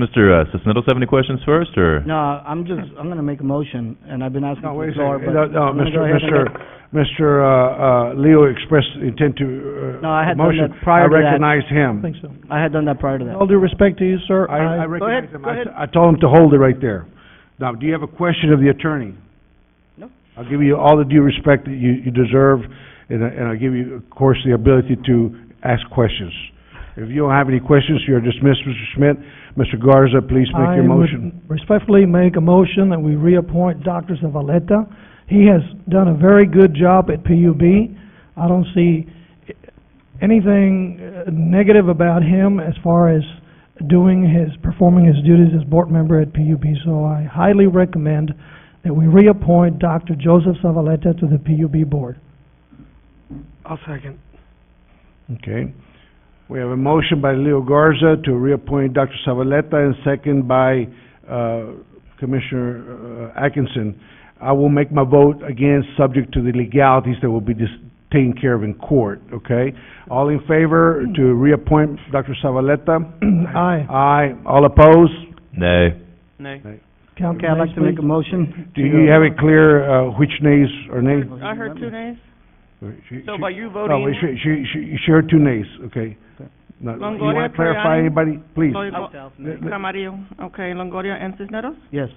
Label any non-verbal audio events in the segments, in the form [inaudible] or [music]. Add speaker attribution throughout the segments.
Speaker 1: Mr. uh, Sisnetos have any questions first, or?
Speaker 2: No, I'm just, I'm gonna make a motion, and I've been asking
Speaker 3: No,
Speaker 2: for
Speaker 3: wait
Speaker 2: the
Speaker 3: a second.
Speaker 2: floor, but.
Speaker 3: No, no,
Speaker 2: I'm gonna go
Speaker 3: Mr.
Speaker 2: ahead and
Speaker 3: Mr.
Speaker 2: make-
Speaker 3: Mr. uh, uh, Leo expressed intent to, uh,
Speaker 2: No, I had done
Speaker 3: motion.
Speaker 2: that prior to
Speaker 3: I
Speaker 2: that.
Speaker 3: recognize him.
Speaker 4: think so.
Speaker 2: I had done that prior to that.
Speaker 4: All due respect to you, sir,
Speaker 3: I, I
Speaker 4: I,
Speaker 2: ahead,
Speaker 3: recognize him.
Speaker 2: go
Speaker 3: I
Speaker 2: ahead.
Speaker 3: t- I told him to hold it right there. Now, do you have a question of the attorney?
Speaker 2: No.
Speaker 3: I'll give you all the due respect that you, you deserve, and, I- and I'll give you, of course, the ability to ask questions. If you don't have any questions, you're dismissed, Mr. Schmidt. Mr. Garza, please make
Speaker 4: I
Speaker 3: your motion.
Speaker 4: would respectfully make a motion that we reappoint Dr. Zavaleta. He has done a very good job at PUB. I don't see anything uh, negative about him as far as doing his, performing his duties as board member at PUB. So I highly recommend that we reappoint Dr. Joseph Zavaleta to the PUB board.
Speaker 5: I'll second.
Speaker 3: Okay. We have a motion by Leo Garza to reappoint Dr. Savaleta and second by, uh, Commissioner uh, Atkinson. I will make my vote again, subject to the legalities that will be dis- taken care of in court, okay? All in favor to reappoint Dr. Savaleta?
Speaker 4: Aye.
Speaker 3: Aye. All opposed?
Speaker 1: Nay.
Speaker 5: Nay.
Speaker 4: Count
Speaker 2: Okay, I'd like
Speaker 4: names,
Speaker 2: to make a
Speaker 4: please.
Speaker 2: motion.
Speaker 3: Do you have it clear, uh, which nays are nays?
Speaker 5: I heard two nays,
Speaker 3: She-
Speaker 5: so
Speaker 3: she-
Speaker 5: by you
Speaker 3: No,
Speaker 5: voting,
Speaker 3: wait, she, she, she, she heard two nays, okay? Now, you
Speaker 5: Longoria,
Speaker 3: wanna clarify
Speaker 5: Troyano?
Speaker 3: anybody, please?
Speaker 5: Longoria,
Speaker 3: Let- let-
Speaker 5: Camarillo, okay, Longoria and Cisneros?
Speaker 2: Yes.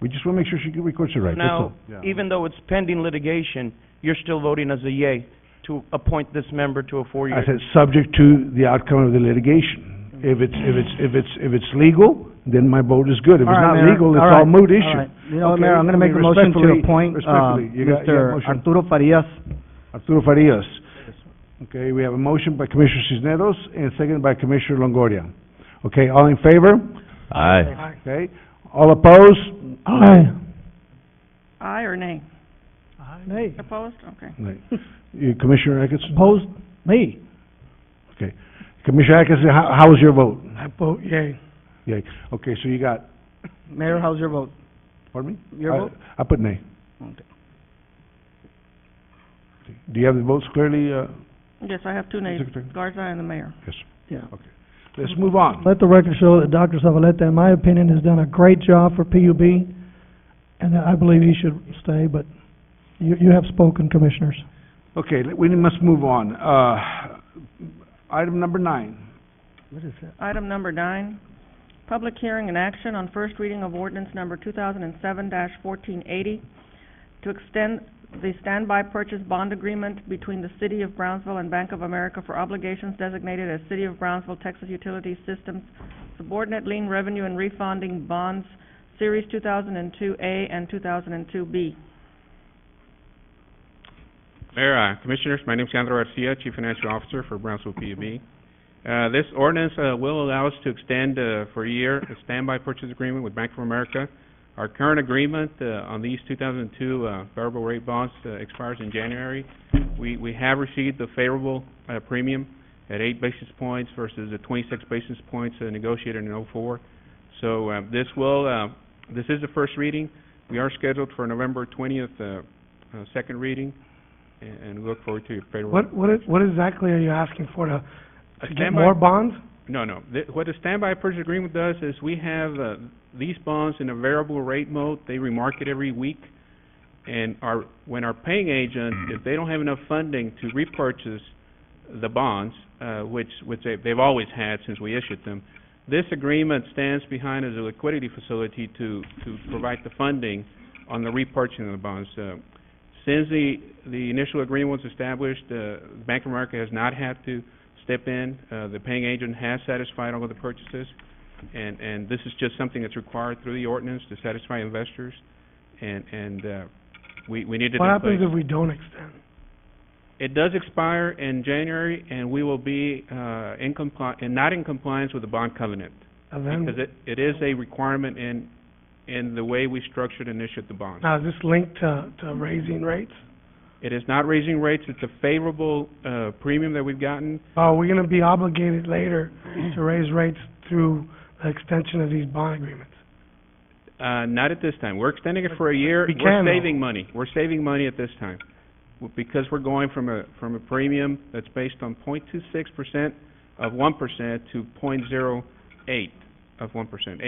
Speaker 3: We just wanna make sure she records it right, that's all.
Speaker 6: Now, even though it's pending litigation, you're still voting as a yay to appoint this member to a four-year.
Speaker 3: I said, subject to the outcome of the litigation. If it's, if it's, if it's, if it's legal, then my vote is good. If it's
Speaker 2: All right,
Speaker 3: not
Speaker 2: Mayor.
Speaker 3: legal, it's
Speaker 2: All right.
Speaker 3: all moot
Speaker 2: All
Speaker 3: issue.
Speaker 2: right. You know, what,
Speaker 3: Okay,
Speaker 2: Mayor, I'm gonna make a motion to
Speaker 3: respectfully-
Speaker 2: appoint, uh,
Speaker 3: respectfully, you got- you have
Speaker 2: Mr.
Speaker 3: motion.
Speaker 2: Arturo Farias.
Speaker 3: Arturo Farias. Okay, we have a motion by Commissioner Cisneros and second by Commissioner Longoria. Okay, all in favor?
Speaker 1: Aye.
Speaker 3: Okay, all opposed?
Speaker 4: Aye.
Speaker 5: Aye or nay?
Speaker 4: Nay.
Speaker 5: Opposed? Okay.
Speaker 2: [laughs]
Speaker 3: Right. You- Commissioner Atkinson?
Speaker 4: Opposed? Me.
Speaker 3: Commissioner Atkinson, how, how was your vote?
Speaker 5: I vote yay.
Speaker 3: Yeah, okay, so you got,
Speaker 2: Mayor, how's your vote?
Speaker 3: pardon me?
Speaker 2: Your
Speaker 3: I-
Speaker 2: vote?
Speaker 3: I put nay.
Speaker 2: Okay.
Speaker 3: Do you have the votes clearly, uh,
Speaker 5: Yes, I have two nays,
Speaker 3: Secretary?
Speaker 5: Garza and the mayor.
Speaker 2: Yeah.
Speaker 3: Let's move on.
Speaker 4: Let the record show that Dr. Zavaleta, in my opinion, has done a great job for PUB, and I believe he should stay, but you, you have spoken, commissioners.
Speaker 3: Okay, let- we must move on. Uh, item number nine.
Speaker 2: What is that?
Speaker 5: Item number nine, public hearing and action on first reading of ordinance number two thousand and seven fourteen eighty to extend the standby purchase bond agreement between the City of Brownsville and Bank of America for obligations designated as City of Brownsville, Texas Utility Systems Subordinate Lien Revenue and Refunding Bonds, Series two thousand and two A and two thousand and two B.
Speaker 7: Mayor, uh, Commissioners, my name is Sandro Garcia, Chief Financial Officer for Brownsville PUB. Uh, This ordinance uh, will allow us to extend uh, for a year a standby purchase agreement with Bank of America. Our current agreement uh, on these 2002 uh, variable rate bonds uh, expires in January. We we have received the favorable uh, premium at eight basis points versus the 26 basis points uh, negotiated in '04. So uh, this will, uh, this is the first reading. We are scheduled for November 20th, uh, uh, second reading and- and we look forward to your favorable.
Speaker 5: what is, what exactly are you asking for, to
Speaker 7: A standby,
Speaker 5: bonds?
Speaker 7: no, no. Th- What a standby purchase agreement does is we have uh, these bonds in a variable rate mode. They remarket every week. And our, when our paying agent, if they don't have enough funding to repurchase the bonds, uh, which, which they- they've always had since we issued them, this agreement stands behind as a liquidity facility to, to provide the funding on the repurchasing of the bonds. Uh, Since the, the initial agreement was established, uh, Bank of America has not had to step in. Uh, the paying agent has satisfied all of the purchases, and, and this is just something that's required through the ordinance to satisfy investors, and, and, uh, we, we need it in place.
Speaker 5: we don't extend?
Speaker 7: It does expire in January, and we will be, uh, in compli- and not in compliance with the bond covenant. Because it, it is a requirement in, in the way we structured and issued the bond.
Speaker 5: Now, is this linked to, to raising rates?
Speaker 7: It is not raising rates, it's a favorable, uh, premium that we've gotten.
Speaker 5: Are we gonna be obligated later to raise rates through the extension of these bond agreements?
Speaker 7: Uh, not at this time. We're extending it for a year.
Speaker 5: We can,
Speaker 7: We're
Speaker 5: though.
Speaker 7: saving money. We're saving money at this time. W- Because we're going from a, from a premium that's based on 0.26% of 1% to 0.08 of one percent.